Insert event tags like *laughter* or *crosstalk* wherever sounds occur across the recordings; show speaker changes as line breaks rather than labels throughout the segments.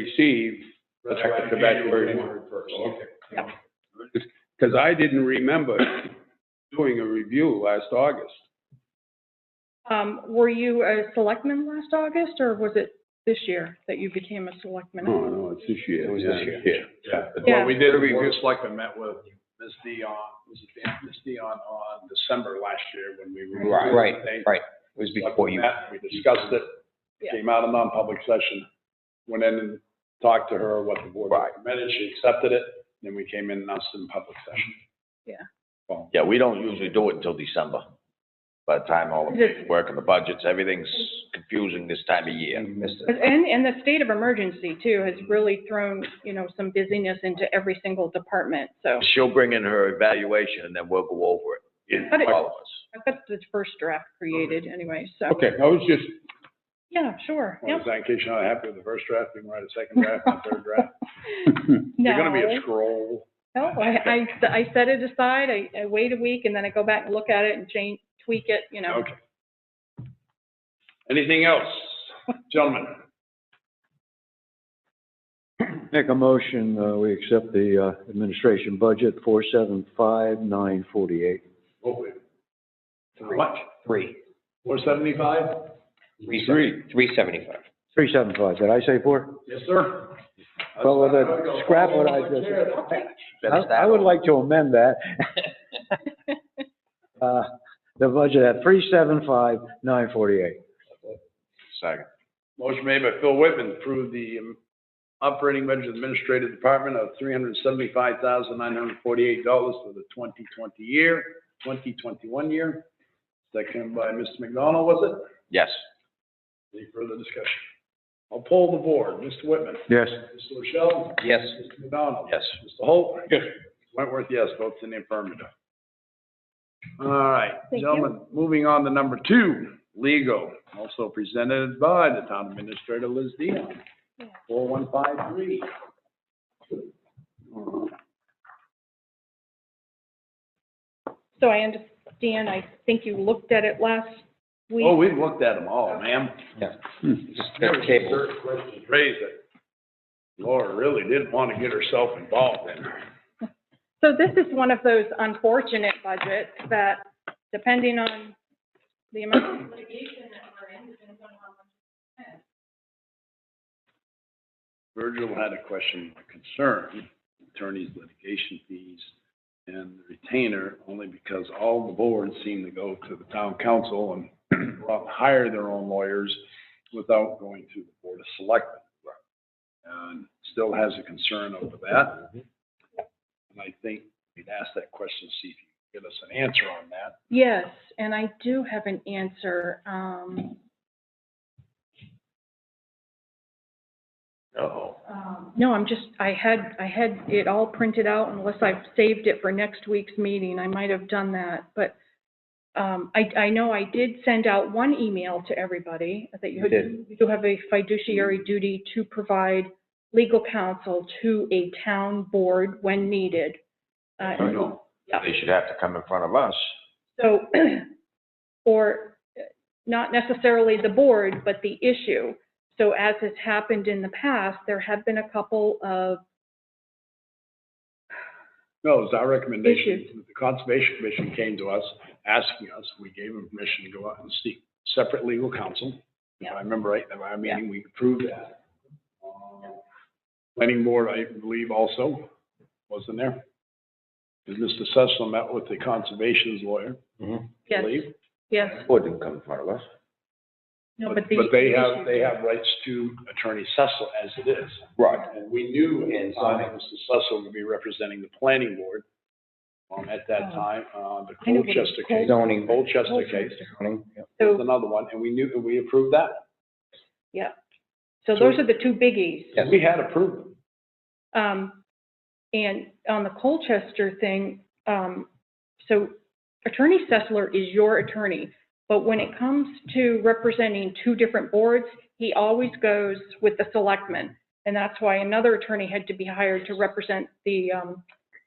receive, Back to back for-
first.
okay. Because I didn't remember doing a review last August.
Um, were you a selectman last August, or was it this year that you became a selectman?
No, no, it's this year.
It was this year.
Yeah.
Yeah.
Well, we did, we just like I met with Ms. Dion, was it Dan- Ms. Dion on December last year when we. were-
Right, right,
They-
right. It was before you.
met, We discussed it,
Yeah.
came out of non-public session, went in and talked to her what the board recommended, she accepted it, then we came in and announced it in public session.
Yeah, we don't usually do it until December. By the time all the
Yes.
work and the budgets, everything's confusing this time of year.
Missed it.
And, and the state of emergency too has really thrown, you know, some busyness into every single department, so.
She'll bring in her evaluation and then we'll go over
But
it,
it-
all of us.
I've got the first draft created anyway, so.
Okay, I was just,
Yeah, sure,
Well,
yep.
is that in case you're not happy with the first draft, you can write a second draft, and a
*laughs*
third draft.
No.
You're gonna be a scroll.
No, I, I, I set it aside, I, I wait a week, and then I go back and look at it and change, tweak it, you know.
Okay. Anything else, gentlemen?
Make a motion, uh, we accept the, uh, administration budget, four seven five nine forty-eight.
What we- How much?
Three.
Four seventy-five?
Three. Three seventy-five.
Three seven five, did I say four?
Yes, sir.
Well, with that, scrap what I just said. I, I would like to amend that. Uh, the budget at three seven five nine forty-eight.
Second.
Motion made by Phil Whitman, to approve the um, operating budget of the administrative department of three hundred seventy-five thousand nine hundred forty-eight dollars for the twenty twenty year, twenty twenty-one year. Second by Mr. McDonald, was
Yes.
it? Any further discussion? I'll poll the board. Mr. Whitman?
Yes.
Mr. Rochelle?
Yes.
Mr. McDonald?
Yes.
Mr. Holt? Yes. Wentworth, yes, votes in the affirmative. All right,
Thank you.
gentlemen, moving on to number two, legal, also presented by the town administrator Liz Dion, four one five three.
So I understand, I think you looked at it last week.
Oh, we've looked at them all, ma'am.
Just the table.
Certain questions raised that Laura really didn't want to get herself involved in.
So this is one of those unfortunate budgets that depending on the amount of litigation that we're in, depends on how much.
Virgil had a question, a concern, attorneys, litigation fees, and the retainer, only because all the boards seem to go to the town council and *clears throat* go out and hire their own lawyers without going to the board of selectmen. And still has a concern over that. And I think we'd ask that question, see if you can get us an answer on that.
Yes, and I do have an answer. Um,
Oh.
um, no, I'm just, I had, I had it all printed out unless I've saved it for next week's meeting. I might have done that, but um, I, I know I did send out one email to everybody that you
You did.
you do have a fiduciary duty to provide legal counsel to a town board when needed. Uh,
I know.
They should have to come in front of us.
so, *clears throat* or uh, not necessarily the board, but the issue. So as has happened in the past, there have been a couple of,
No, it's our recommendation.
Issues.
that The Conservation Commission came to us, asking us, we gave them permission to go out and seek separate legal counsel. If I remember right, at our meeting, we approved that. Uh, Planning board, I believe also, wasn't there? And Mr. Sessler met with the conservation's lawyer, I
yes,
believe.
yes,
Board didn't come in front of us.
no, but
But
the.
but they
issue-
have, they have rights to Attorney Sessler as it is.
Right.
And we knew at the time that Mr. Sussel would be representing the planning board um, at that time, uh, the
Oh. I know what it's
Colchester case.
Zoning.
Colchester case
Zoning, yeah.
was
So-
another one, and we knew, and we approved that.
So those are the two biggies.
Yes.
We had approved them.
Um, and on the Colchester thing, um, so Attorney Sessler is your attorney. But when it comes to representing two different boards, he always goes with the selectmen. And that's why another attorney had to be hired to represent the, um,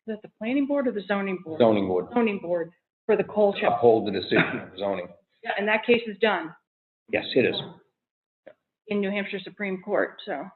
is it the planning board or the zoning board?
Zoning board.
Zoning board for the Colchester.
Uh,
Uphold the decision of zoning.
Yeah, And that case is done
Yes, it is.
in New Hampshire Supreme Court, so.